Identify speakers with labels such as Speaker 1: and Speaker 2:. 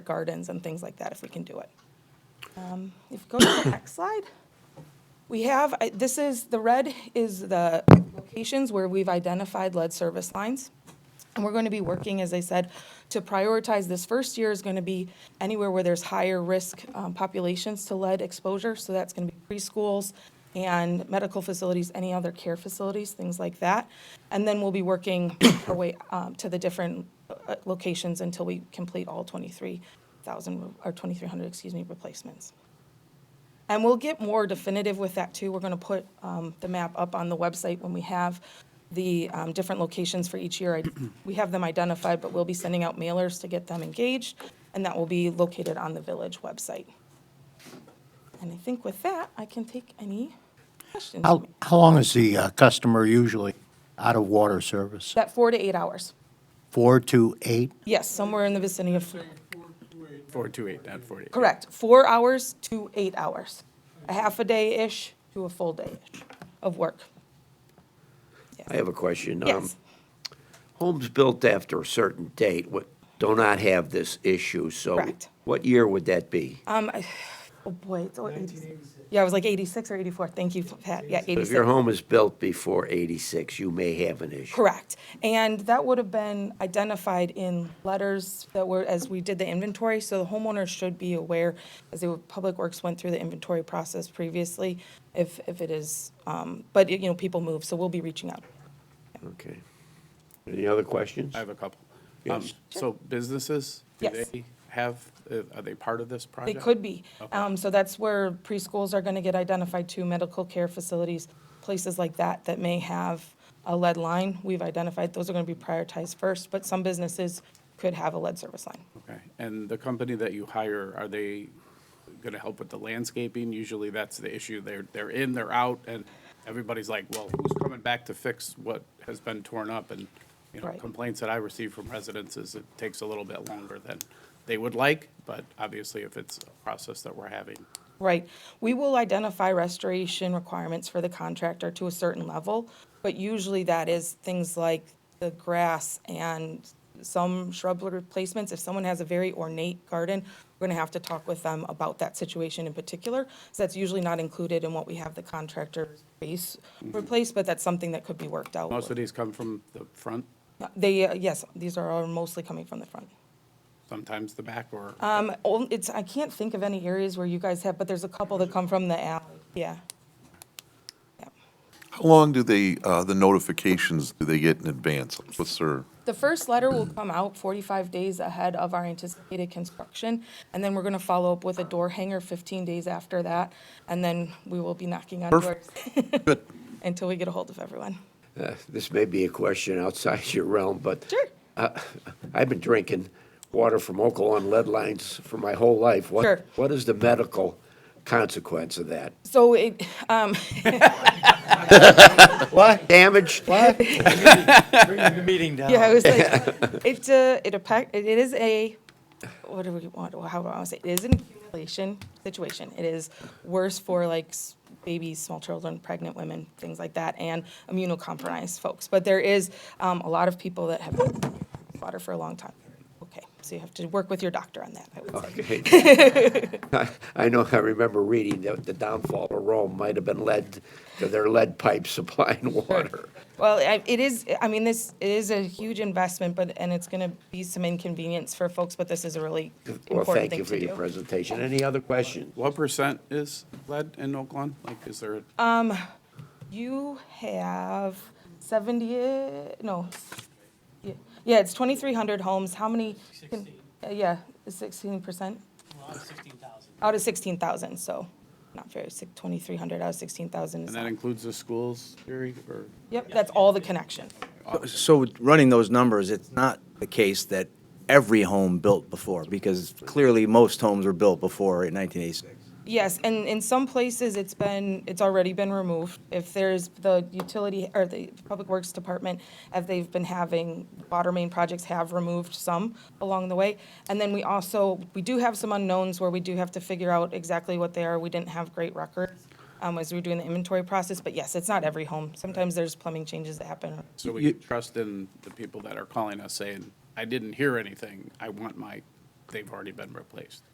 Speaker 1: gardens and things like that if we can do it. Um, If you go to the next slide, we have, I- this is, the red is the locations where we've identified lead service lines. And we're going to be working, as I said, to prioritize this first year is going to be anywhere where there's higher risk um, populations to lead exposure. So that's going to be preschools and medical facilities, any other care facilities, things like that. And then we'll be working our way um, to the different uh, locations until we complete all 23,000, re- or 2,300, excuse me, replacements. And we'll get more definitive with that too. We're going to put um, the map up on the website when we have the um, different locations for each year. I- We have them identified, but we'll be sending out mailers to get them engaged, and that will be located on the village website. And I think with that, I can take any questions.
Speaker 2: How, how long is the uh, customer usually out of water service?
Speaker 1: That four to eight hours.
Speaker 2: Four to eight?
Speaker 1: Yes, somewhere in the vicinity of,
Speaker 3: Four two eight, not forty.
Speaker 1: correct, four hours to eight hours. A half a day-ish to a full day-ish of work.
Speaker 4: I have a question. Um,
Speaker 1: Yes.
Speaker 4: Homes built after a certain date would, do not have this issue, so.
Speaker 1: Correct.
Speaker 4: What year would that be?
Speaker 1: Um, I- oh boy, it's all 86. Yeah, I was like 86 or 84. Thank you, Pat. Yeah,
Speaker 4: If your
Speaker 1: 86.
Speaker 4: home is built before eighty-six, you may have an issue.
Speaker 1: Correct. And that would have been identified in letters that were, as we did the inventory. So the homeowner should be aware, as the Public Works went through the inventory process previously, if, if it is, um, but, you know, people move, so we'll be reaching out.
Speaker 4: Okay. Any other questions?
Speaker 3: I have a couple. Um,
Speaker 4: Yes.
Speaker 3: So businesses, do
Speaker 1: Yes.
Speaker 3: they have, uh, are they part of this
Speaker 1: They
Speaker 3: project?
Speaker 1: could be.
Speaker 3: Okay.
Speaker 1: Um, so that's where preschools are gonna get identified too, medical care facilities, places like that that may have a lead line. We've identified, those are gonna be prioritized first, but some businesses could have a lead service line.
Speaker 3: Okay, and the company that you hire, are they gonna help with the landscaping? Usually that's the issue, they're, they're in, they're out, and everybody's like, well, who's coming back to fix what has been torn up? And, you know,
Speaker 1: Right.
Speaker 3: complaints that I receive from residents is it takes a little bit longer than they would like, but obviously if it's a process that we're having,
Speaker 1: Right. We will identify restoration requirements for the contractor to a certain level, but usually that is things like the grass and some shrub replacements. If someone has a very ornate garden, we're gonna have to talk with them about that situation in particular. So that's usually not included in what we have the contractor base replace, but that's something that could be worked out.
Speaker 3: Mm-hmm. most of
Speaker 1: with.
Speaker 3: these come from the front,
Speaker 1: They, uh, yes, these are all mostly coming from the front.
Speaker 3: sometimes the back, or?
Speaker 1: Um, on- it's, I can't think of any areas where you guys have, but there's a couple that come from the alley, yeah.
Speaker 5: How long do they, uh, the notifications, do they get in advance? What's their,
Speaker 1: The first letter will come out 45 days ahead of our anticipated construction, and then we're going to follow up with a door hanger 15 days after that, and then we will be knocking on doors
Speaker 5: Perfect. good,
Speaker 1: until we get a hold of everyone.
Speaker 4: Uh, This may be a question outside your realm, but.
Speaker 1: Sure.
Speaker 4: uh, I've been drinking water from Oklahoma lead lines for my whole life. What-
Speaker 1: Sure.
Speaker 4: What is the medical consequence of that?
Speaker 1: So it, um,
Speaker 4: What? Damage? What?
Speaker 6: meeting down.
Speaker 1: yeah, I was like, it's a, it a, it is a, what do we want, how do I want to say, it is an accumulation situation. It is worse for like s- babies, small children, pregnant women, things like that, and immunocompromised folks. But there is um, a lot of people that have had water for a long time. Okay, so you have to work with your doctor on that, I would say.
Speaker 4: Okay. I- I know, I remember reading that the downfall of Rome might have been led to their lead pipes supplying water.
Speaker 1: Well, I- it is, I mean, this, it is a huge investment, but, and it's going to be some inconvenience for folks, but this is a really
Speaker 4: Well,
Speaker 1: important
Speaker 4: thank
Speaker 1: thing
Speaker 4: you for
Speaker 1: to
Speaker 4: your
Speaker 1: do.
Speaker 4: presentation. Any other questions?
Speaker 3: What percent is lead in Oakland? Like, is there,
Speaker 1: You have 70, uh, no, yeah, yeah, it's 2,300 homes, how many? can- uh, Yeah, it's 16%,
Speaker 6: Well, sixteen thousand.
Speaker 1: out of 16,000, so, not very, six- 2,300 out of 16,000 is,
Speaker 3: and that
Speaker 1: not-
Speaker 3: includes the schools, Jerry, or?
Speaker 1: yep, that's all the connection.
Speaker 7: So running those numbers, it's not the case that every home built before, because clearly most homes were built before in 1986.
Speaker 1: Yes, and in some places, it's been, it's already been removed. If there's the utility, or the Public Works Department, if they've been having, water main projects have removed some along the way. And then we also, we do have some unknowns where we do have to figure out exactly what they are. We didn't have great records um, as we were doing the inventory process, but yes, it's not every home. Sometimes there's plumbing changes that happen.
Speaker 3: So we can trust in the people that are calling us saying, I didn't hear anything. I want my they've already been replaced.